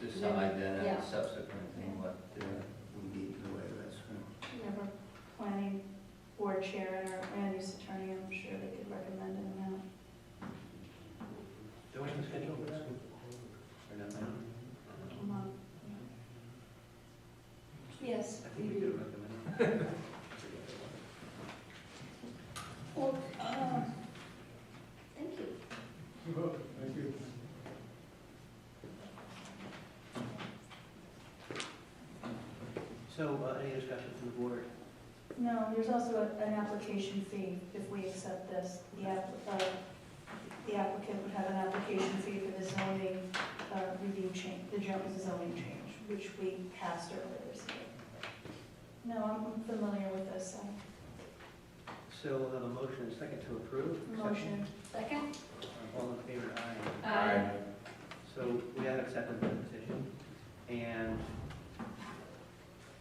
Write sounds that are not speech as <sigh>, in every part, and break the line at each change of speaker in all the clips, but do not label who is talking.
decide then
Yeah.
at a subsequent thing what uh, we need in the way of that screen.
You know, we're planning board chair and our Randy's attorney, I'm sure they could recommend an amount.
Do we have a schedule for that? Or not now?
a month. Yes,
I
we
think we
do.
could
<laughs>
recommend.
Well, uh, thank you.
Thank you.
So uh, any discussion from the board?
No, there's also a- an application fee if we accept this. The app- uh, the applicant would have an application fee for the zoning uh, review change, the Jones zoning change, which we passed earlier this year. No, I'm familiar with this, uh,
So we'll have a motion and second to approve.
motion. Second?
All in favor, aye.
Aye.
So we have accepted the petition, and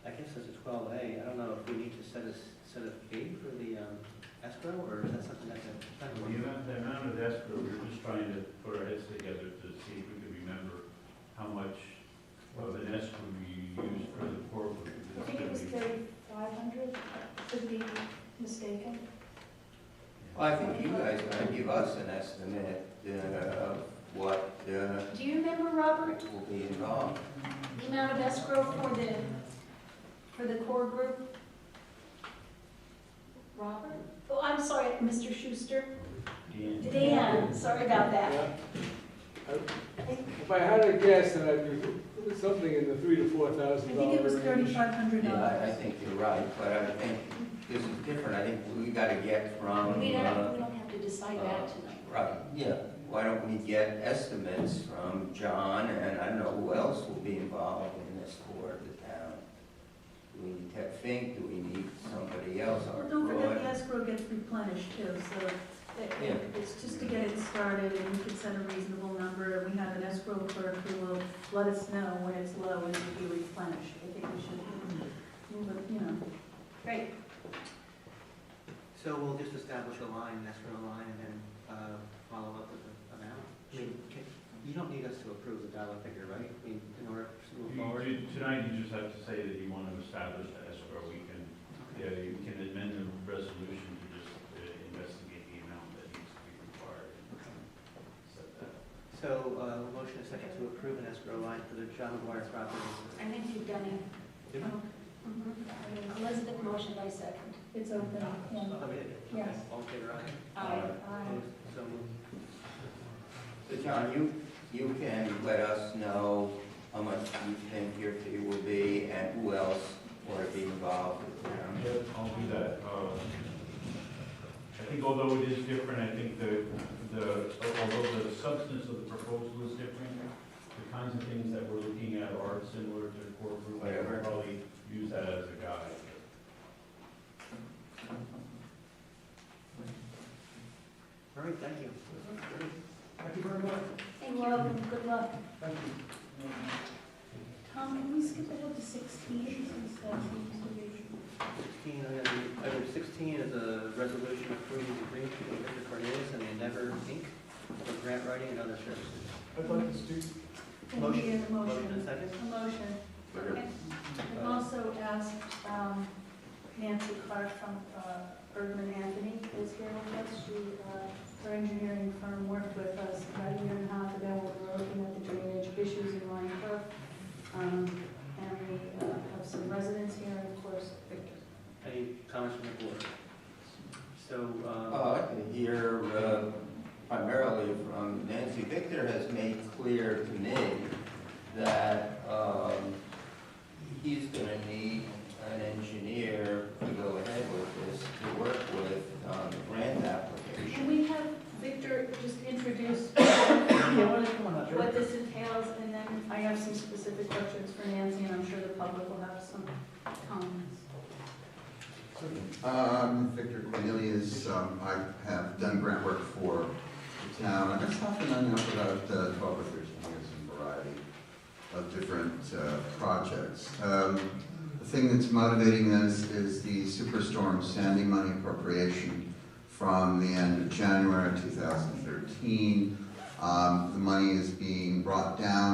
I guess as a twelve A, I don't know if we need to set a, set a fee for the um, escrow, or is that something that the
The
planning board?
amount, the amount of escrow, we're just trying to put our heads together to see if we can remember how much of an escrow we used for the corporate.
I think it was thirty-five hundred, could be mistaken.
Well, I think you guys are gonna give us an estimate uh, of what uh,
Do you remember, Robert,
will be involved.
the amount of escrow for the, for the core group? Robert? Oh, I'm sorry, Mr. Schuster.
Dan,
Dan, sorry about that.
If I had a guess, then I'd be it was something in the three to four
I
thousand dollar
think it was
range.
thirty-five hundred
Yeah, I, I
dollars.
think you're right, but I think this is different, I think we gotta get from,
We don't,
uh,
we don't have to decide that tonight.
right, yeah. Why don't we get estimates from John, and I don't know who else will be involved in this for the town? Do we need Ted Fink, do we need somebody else,
Well,
Art
don't forget the
Roy?
escrow gets replenished too, so it-
Yeah.
it's just to get it started and you can set a reasonable number. and We have an escrow clerk who will let us know when it's low and it'll be replenished. I think we should move it, you know.
Right.
So we'll just establish a line, escrow line, and then, uh, follow up with the amount? I mean, can- you don't need us to approve the dollar figure, right? I mean, in order to move
you-
forward?
you- Tonight, you just have to say that you want to establish the escrow. We can, yeah, you can amend the resolution to just uh, investigate the amount that needs to be required. Set that.
So, uh, motion is second to approve an escrow line for the John McGuire property.
I think you've done it.
Did we?
Mhm. Elizabeth motioned by second.
It's open, yeah.
Oh, we did? Okay.
Yes.
All in favor, aye?
Aye.
Opposed? So moved.
So John, you, you can let us know how much you think your fee will be and who else will be involved with them.
Yeah, I'll do that. Uh, I think although it is different, I think the, the, although the substance of the proposal is different, the kinds of things that we're looking at are similar to the core group. I would probably use that as a guide.
All right, thank you.
Thank you very much.
Thank you, welcome, good luck.
Thank you.
Tom, can we skip ahead to sixteen since that seems to be?
Sixteen, item- item sixteen is a resolution approving the agreement between Victor Cornelius and Endeavor Inc. for grant writing and other services.
I'd like to speak.
Can we get a
Motion and
motion?
second?
A motion.
I've also asked um, Nancy Clark from uh, Bergman Anthony is here with us. She, uh, her engineering firm worked with us about a year and a half ago. We were looking at the drainage issues in Lion Brook. Um, And we uh, have some residents here and of course Victor.
Any comments from the board? So, um,
Uh, I can hear uh, primarily from Nancy. Victor has made clear to me that um, he's going to need an engineer to go ahead with this, to work with on the grant
Can
application.
we have Victor just introduce
yeah, why don't you come on up here?
what this entails, and then I have some specific questions for Nancy, and I'm sure the public will have some comments.
Um, Victor Cornelius, um, I have done grant work for the town, and it's often done now for about uh, twelve or thirteen years in a variety of different, uh, projects. Um, the thing that's motivating this is the Superstorm Sandy money appropriation from the end of January two thousand thirteen. Um, the money is being brought down